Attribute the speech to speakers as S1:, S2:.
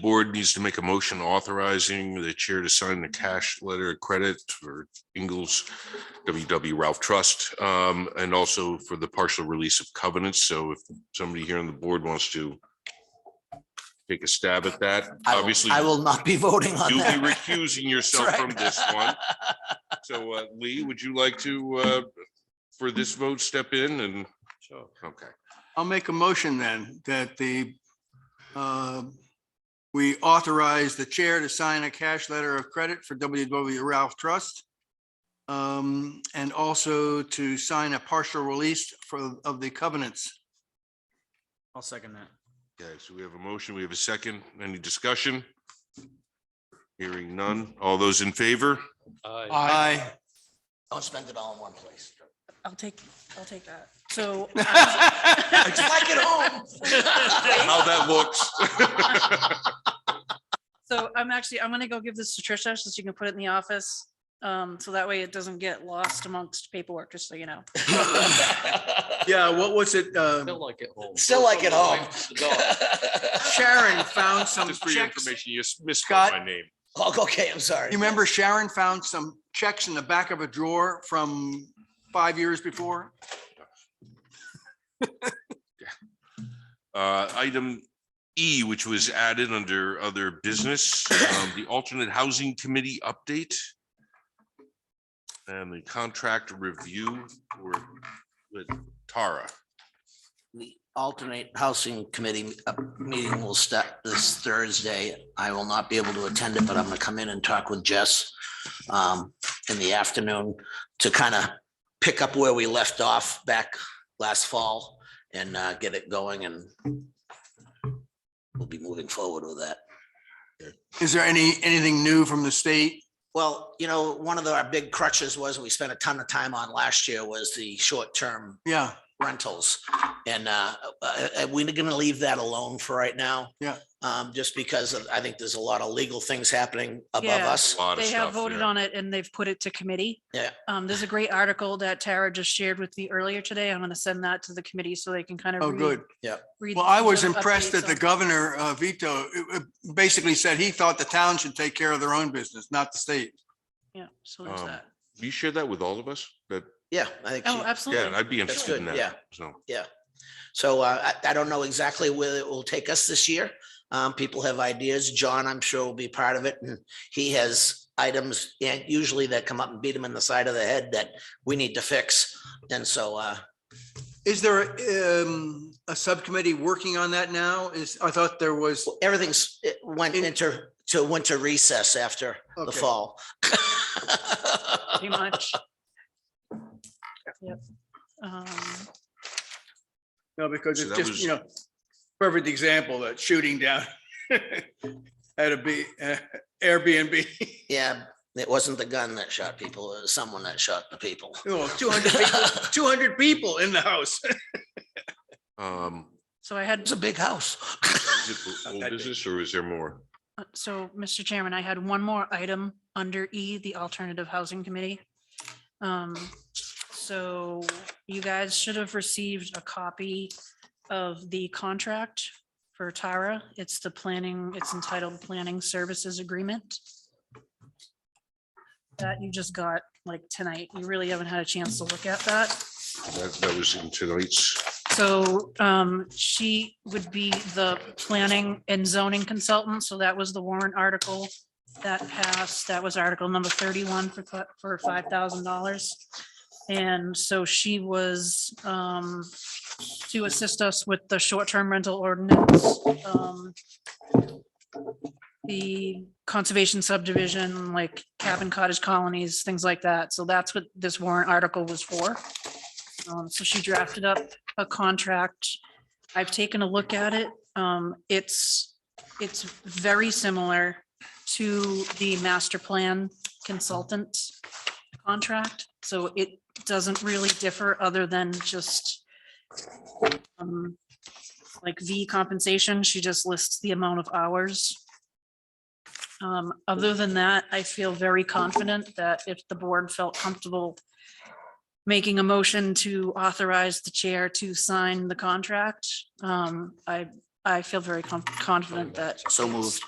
S1: board needs to make a motion authorizing the chair to sign the cash letter of credit for Ingalls WW Ralph Trust, um, and also for the partial release of covenants. So if somebody here on the board wants to take a stab at that,
S2: I will-
S1: obviously
S2: I will not be voting on
S1: you'll be
S2: that.
S1: recusing yourself
S2: right.
S1: from this one. So uh, Lee, would you like to, uh, for this vote, step in and, okay.
S3: I'll make a motion then that the uh, we authorize the chair to sign a cash letter of credit for WW Ralph Trust. um, And also to sign a partial release for of the covenants.
S4: I'll second that.
S1: Okay, so we have a motion, we have a second, any discussion? Hearing none, all those in favor?
S3: Aye.
S2: Don't spend it all in one place.
S5: I'll take, I'll take that. So.
S2: I just like it home.
S1: How that looks.
S5: So I'm actually, I'm gonna go give this to Trisha so she can put it in the office. Um, so that way it doesn't get lost amongst paperwork, just so you know.
S3: Yeah, what was it? uh,
S6: like it home.
S2: Still like it home.
S3: Sharon found some
S1: Just for your
S3: checks.
S1: information, you misspelled my
S3: Scott.
S1: name.
S2: Oh, Okay, I'm sorry.
S3: You remember Sharon found some checks in the back of a drawer from five years before?
S1: Uh, Item E, which was added under other business, um, the alternate housing committee update and the contract review were with Tara.
S2: The alternate housing committee uh, meeting will start this Thursday. I will not be able to attend it, but I'm gonna come in and talk with Jess um, in the afternoon to kind of pick up where we left off back last fall and uh, get it going and we'll be moving forward with that.
S3: Is there any, anything new from the state?
S2: Well, you know, one of the- our big crutches was we spent a ton of time on last year was the short-term
S3: Yeah,
S2: rentals. And uh, uh, uh, we're gonna leave that alone for right now.
S3: Yeah.
S2: Um, just because of- I think there's a lot of legal things happening above
S5: Yeah.
S2: us.
S1: A lot of
S5: They have
S1: stuff.
S5: voted
S1: yeah.
S5: on it and they've put it to committee.
S2: Yeah.
S5: Um, there's a great article that Tara just shared with me earlier today. I'm gonna send that to the committee so they can kind of.
S3: oh, good.
S5: read
S3: Well,
S5: through
S3: I was
S5: the
S3: impressed
S5: updates
S3: that the
S5: on-
S3: governor uh, veto uh, uh, basically said he thought the town should take care of their own business, not the state.
S5: Yeah, so there's
S1: Um,
S5: that.
S1: You share that with all of us? That,
S2: Yeah, I think,
S5: Oh,
S2: so.
S1: yeah,
S5: absolutely.
S1: I'd be interested in
S2: good, yeah.
S1: that. So.
S2: so uh, I, I don't know exactly where it will take us this year. Um, people have ideas. John, I'm sure will be part of it. And he has items and usually that come up and beat him in the side of the head that we need to fix. And so uh,
S3: Is there um, a subcommittee working on that now? Is, I thought there was,
S2: everything's, it went
S3: In-
S2: into, to winter recess after the
S3: Okay.
S2: fall.
S5: Pretty much. Yep. Um,
S3: no, because
S1: So
S3: it's
S1: that
S3: just,
S1: was-
S3: you know, perfect example, that shooting down at a B, uh, Airbnb,
S2: Yeah, it wasn't the gun that shot people, it was someone that shot the people.
S3: oh, 200 people, 200 people in the house.
S1: Um,
S5: So I had
S2: It's a big house.
S1: is it old
S3: that big.
S1: business or is there more?
S5: Uh, So, Mr. Chairman, I had one more item under E, the Alternative Housing Committee. Um, So you guys should have received a copy of the contract for Tara. It's the planning, it's entitled Planning Services Agreement. That you just got like tonight. You really haven't had a chance to look at that.
S1: That, that was in tonight's.
S5: So um, she would be the planning and zoning consultant, so that was the warrant article that passed, that was article number thirty-one for, fi- for five thousand dollars. And so she was um, to assist us with the short-term rental ordinance. um, The conservation subdivision, like cabin cottage colonies, things like that, so that's what this warrant article was for. Um, So she drafted up a contract. I've taken a look at it. Um, it's, it's very similar to the master plan consultant contract. So it doesn't really differ other than just um, like V compensation. She just lists the amount of hours. Um, other than that, I feel very confident that if the board felt comfortable making a motion to authorize the chair to sign the contract. Um, I, I feel very com- confident that
S2: So moved.